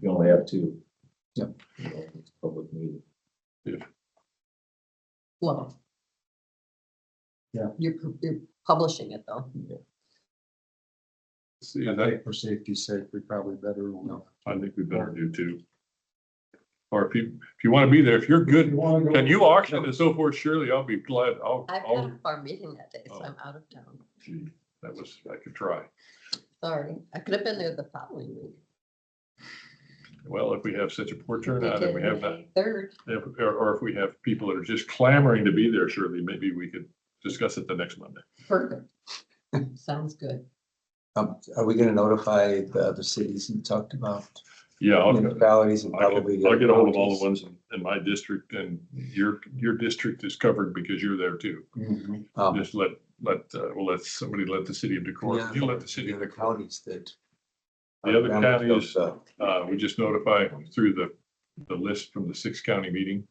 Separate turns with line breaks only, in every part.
You only have two.
Yep.
You know, it's a Public meeting.
Well.
Yeah.
You're, pu- you're publishing it though.
See,
I
and I,
think for safety's sake, we probably better, no.
I think we better do too. Or if you, if you want to be there, if you're good, and you auction and so forth, surely I'll be glad. I'll,
I've got
I'll,
a farm meeting that day, so
Oh.
I'm out of town.
gee, that was, I could try.
Sorry, I could have been there the following week.
Well, if we have such a poor turnout and we have not,
Third,
if- or, or if we have people that are just clamoring to be there, surely maybe we could discuss it the next Monday.
perfect. Sounds good.
Um, are we gonna notify the other cities you talked about?
Yeah, I'll,
Municipalities and
I can-
Mm, probably.
I'll get ahold of all the ones in- in my district and your, your district is covered because you're there too.
Mhm. Um,
Just let, let, uh, well, let somebody let the city of
Yeah.
Decorah, you let the city
the
of
other
Decorah.
counties that.
The other counties-
Uh,
Uh, we just notify through the, the list from the six county meeting.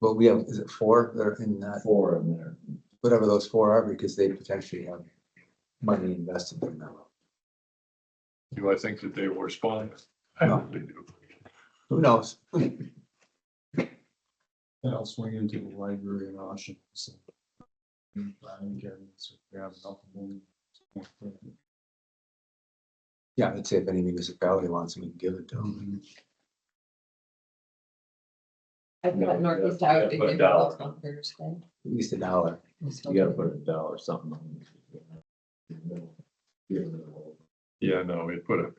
Well, we have, is it four that are in that,
Four in there.
whatever those four are, because they potentially have money invested in them.
Do I think that they will respond? I hope they do.
Who knows?
And I'll swing into the library and auction. so. And buying cabinets or grab something.
Yeah, I'd say if any municipality wants, we can give it to them.
I've
Yeah,
got Northeast
yeah,
Iowa
yeah,
to
put a
give
dollar.
those on Thursday.
at least a dollar.
You gotta put a dollar or something on. it. You know, Give it all.
Yeah, no, we put a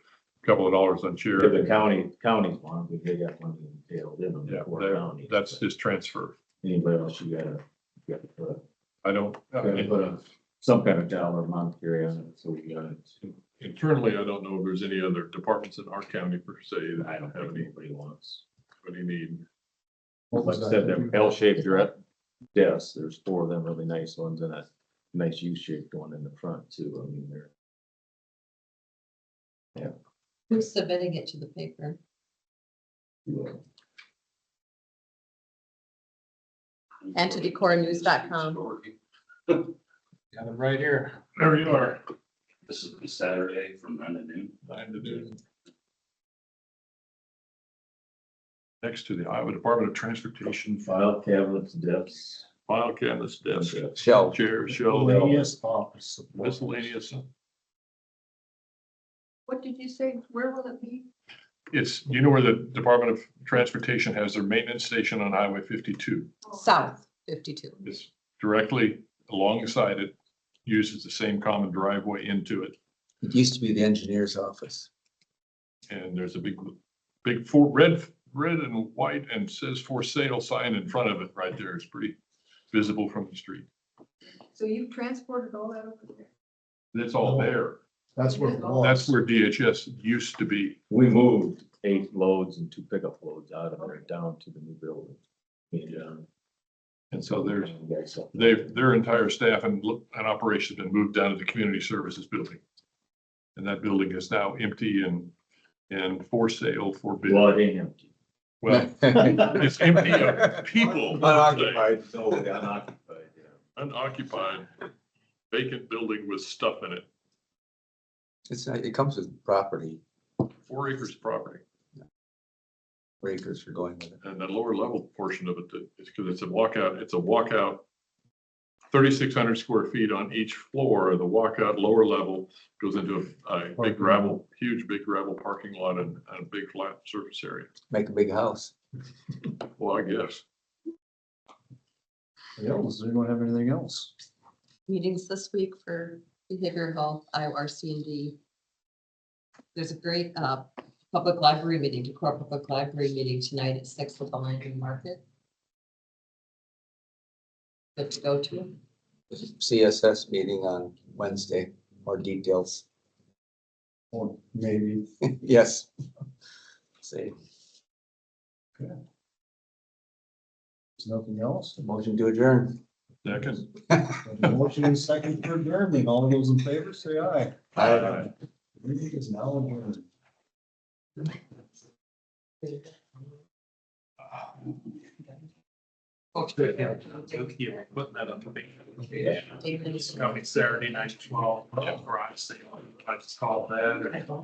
couple of dollars on
Sure,
chair.
the county, counties want, because they got money entailed in them,
Yeah,
the four
there-
counties.
that's
but
his transfer.
Anybody else, you gotta, you gotta put, a-
I don't, I
gotta put
mean,
a- some kind of dollar amount here on it, so we got it.
internally, I don't know if there's any other departments in our county per se that
I don't
have
think
any,
anybody wants.
any need.
Like I said, them L-shaped direct desks, there's four of them really nice ones and a nice U-shaped one in the front too, I mean, they're.
Who's submitting it to the paper? And to decornews.com.
Got them right here.
There you are.
This will be Saturday from nine to noon.
Time to do. Next to the Iowa Department of Transportation
File cabinets, desks.
file cabinets, desk,
Shell.
chair, shelf,
Miscellaneous office supplies.
miscellaneous.
What did you say? Where will it be?
It's, you know where the Department of Transportation has their maintenance station on Highway fifty-two.
South fifty-two.
It's directly alongside it, uses the same common driveway into it.
It used to be the engineer's office.
And there's a big, big four, red, red and white and says for sale sign in front of it right there. It's pretty visible from the street.
So you've transported all that over there?
It's all there.
That's what it was.
That's where DHS used to be.
We moved eight loads and two pickup loads out of there down to the new building. And,
And so there's,
uh,
they've, their entire staff and, lo- and operation has been moved down to the community services building. And that building is now empty and, and for sale for bid.
Well, it ain't empty.
Well, it's empty of people.
Unoccupied.
Totally unoccupied, yeah.
Unoccupied, vacant building with stuff in it,
It's, not- it comes with property,
four acres of property.
breakers for going with it.
And that lower level portion of it, that- it's because it's a walkout, it's a walkout. Thirty-six hundred square feet on each floor of the walkout lower level goes into a, a big gravel, huge big gravel parking lot and, and a big flat surface area.
Make a big house.
Well, I guess.
Else, we don't have anything else.
meetings this week for behavioral health, IORC and D. There's a great uh, public library meeting, Decorah Public Library meeting tonight at six with the Landry Market. Good to go to.
CSS meeting on Wednesday, more details.
Or maybe
Yes. See,
there's nothing else.
motion to adjourn.
Second.
Motion and second for adjournment. All those in favor, say aye.
Aye.
Meeting is now adjourned.
putting that up to me.
David.
Coming Saturday night, twelve, garage sale, I just called that. and-